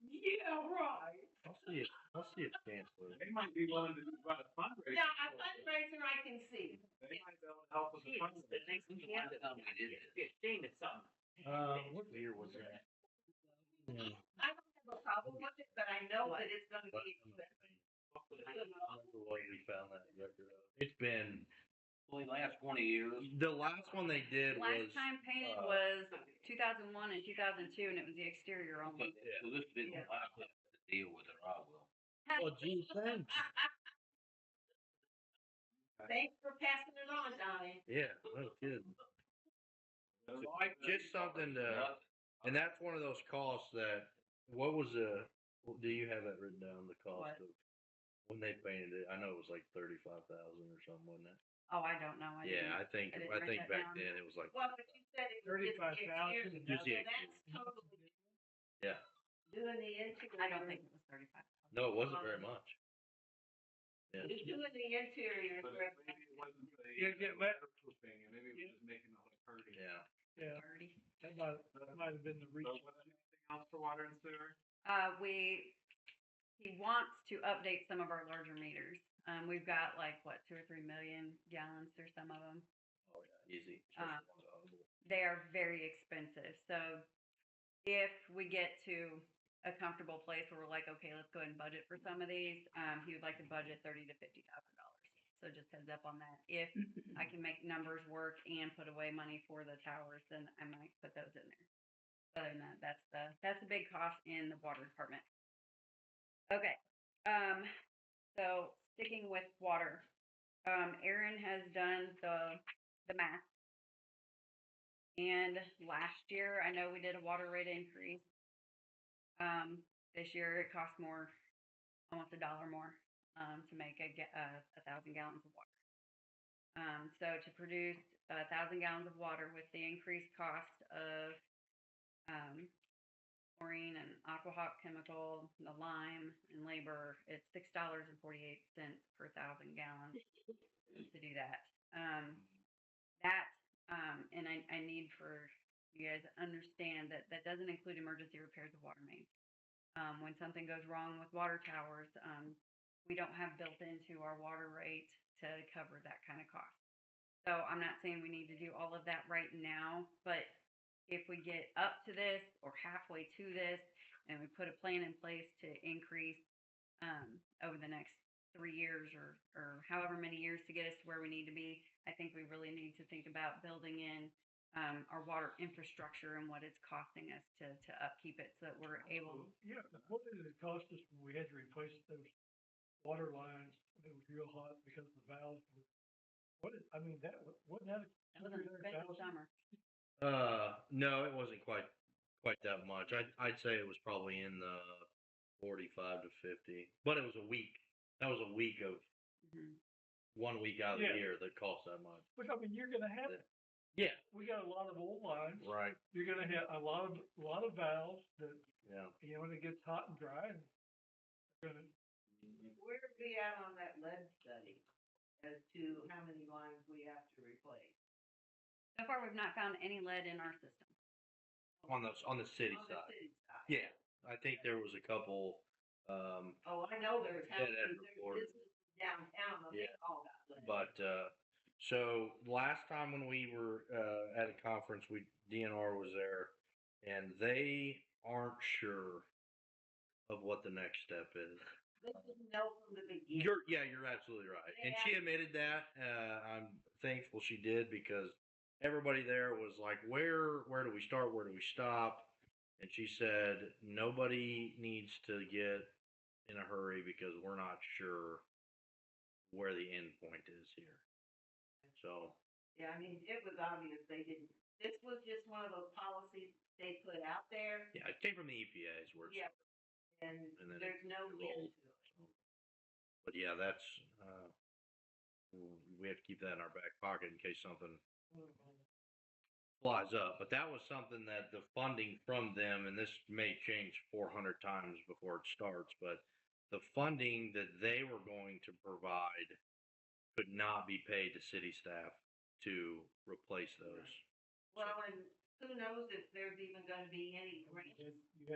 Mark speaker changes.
Speaker 1: Yeah, right.
Speaker 2: I'll see it. I'll see it, Chancellor.
Speaker 3: They might be willing to do about a fundraiser.
Speaker 1: Now, a fundraiser I can see.
Speaker 3: They might be able to help us with
Speaker 4: The
Speaker 3: fundraising.
Speaker 4: next one, yeah, fifteen or something.
Speaker 2: Uh, what year was that? Yeah.
Speaker 1: I don't have a problem with it, but I know that it's gonna be expensive.
Speaker 2: I don't know why we found that record. It's been
Speaker 5: Only last twenty years.
Speaker 2: the last one they did was
Speaker 6: Last time painted
Speaker 2: uh,
Speaker 6: was two thousand one and two thousand two, and it was the exterior
Speaker 5: But
Speaker 6: only.
Speaker 5: so this been the last one to deal with it, I will.
Speaker 2: well, gee, thanks.
Speaker 1: Thanks for passing it on, Donnie.
Speaker 2: Yeah, no kidding.
Speaker 3: They're
Speaker 2: So,
Speaker 3: like-
Speaker 2: Just something to, and that's one of those costs that. What was the? Do you have that written down? The cost
Speaker 6: What?
Speaker 2: of when they painted it? I know it was like thirty five thousand or something, wasn't it?
Speaker 6: Oh, I don't know. I
Speaker 2: Yeah, I
Speaker 6: didn't-
Speaker 2: think
Speaker 6: I
Speaker 2: I
Speaker 6: didn't write
Speaker 2: think
Speaker 6: that
Speaker 2: back
Speaker 6: down.
Speaker 2: then it was like
Speaker 1: Well, but you said it was just
Speaker 3: 35,000
Speaker 1: the exterior.
Speaker 2: Just the
Speaker 1: So That's totally.
Speaker 2: Yeah.
Speaker 1: Doing the interior.
Speaker 6: I don't think it was thirty-five.
Speaker 2: no, it
Speaker 6: Um,
Speaker 2: wasn't very much. Yeah.
Speaker 1: Doing the interior. is
Speaker 3: But
Speaker 1: where-
Speaker 3: maybe it wasn't the
Speaker 7: Yeah, get let-
Speaker 3: medical thing, and maybe it was just making the whole party.
Speaker 2: Yeah.
Speaker 7: Yeah,
Speaker 6: Thirty.
Speaker 7: that might, that might have been the reach.
Speaker 3: So was there anything else for water and sewer?
Speaker 6: Uh, we, he wants to update some of our larger meters. Um, we've got like, what, two or three million gallons or some of them.
Speaker 2: Oh yeah, easy.
Speaker 6: Uh, They are very expensive. So if we get to a comfortable place where we're like, okay, let's go ahead and budget for some of these, um, he would like to budget thirty to fifty thousand dollars. So just heads up on that. If I can make numbers work and put away money for the towers, then I might put those in there. Other than that, that's the, that's a big cost in the water department. Okay, um, so sticking with water, um, Aaron has done the, the math. And last year, I know we did a water rate increase. Um, this year it cost more, almost a dollar more, um, to make a, ga- uh, a thousand gallons of water. Um, so to produce a thousand gallons of water with the increased cost of um, chlorine and aquahawk chemical, the lime and labor, it's six dollars and forty-eight cents per thousand gallons to do that. Um, that um, and I, I need for you guys to understand that that doesn't include emergency repairs of water mains. Um, when something goes wrong with water towers, um, we don't have built into our water rate to cover that kind of cost. So I'm not saying we need to do all of that right now, but if we get up to this or halfway to this and we put a plan in place to increase um, over the next three years or, or however many years to get us to where we need to be, I think we really need to think about building in um, our water infrastructure and what it's costing us to, to upkeep it so that we're able.
Speaker 7: Yeah, what did it cost us when we had to replace those water lines? when It was real hot because the valves were, what, did- I mean, that, wa- wasn't that?
Speaker 6: It was an expensive
Speaker 7: 300,000?
Speaker 6: summer.
Speaker 2: Uh, no, it wasn't quite quite that much. I'd I'd say it was probably in the forty five to fifty, but it was a week. That was a week of
Speaker 6: Mhm.
Speaker 2: one week out of the
Speaker 7: Yeah.
Speaker 2: year that cost that much.
Speaker 7: Which, I mean, you're gonna have, it.
Speaker 2: Yeah.
Speaker 7: we got a lot of old lines.
Speaker 2: Right.
Speaker 7: You're gonna have a lot of, a lot of valves that,
Speaker 2: Yeah.
Speaker 7: you know, when it gets hot and dry and they're gonna,
Speaker 1: Where are we at on that lead study as to how many lines we have to replace?
Speaker 6: So far, we've not found any lead in our system.
Speaker 2: On the on the city
Speaker 1: On the
Speaker 2: side.
Speaker 1: city side.
Speaker 2: Yeah. I think there was a couple um
Speaker 1: Oh, I know there's
Speaker 2: Yeah, that
Speaker 1: houses,
Speaker 2: report.
Speaker 1: there's businesses downtown, that they
Speaker 2: Yeah.
Speaker 1: all got lead.
Speaker 2: But uh, so last time when we were uh, at a conference, we DNR was there, and they aren't sure of what the next step is.
Speaker 1: They didn't know from the beginning.
Speaker 2: You're yeah, you're absolutely right, and she admitted that. Uh, I'm thankful she did because everybody there was like, "Where where do we start? Where do we stop?" And she said, "Nobody needs to get in a hurry because we're not sure where the end point is here." So
Speaker 1: Yeah, I mean, it was obvious they didn't, this was just one of those policies they put out there
Speaker 2: Yeah, it came from the E EPA's words.
Speaker 1: Yeah. and
Speaker 2: And then it
Speaker 1: there's no end
Speaker 2: rolled.
Speaker 1: to it.
Speaker 2: But yeah, that's uh, w- we have to keep that in our back pocket in case something flies up. But that was something that the funding from them, and this may change 400 times before it starts, but the funding that they were going to provide could not be paid to city staff to replace those.
Speaker 1: Well, and who knows if there's even gonna be any grant
Speaker 7: you had- you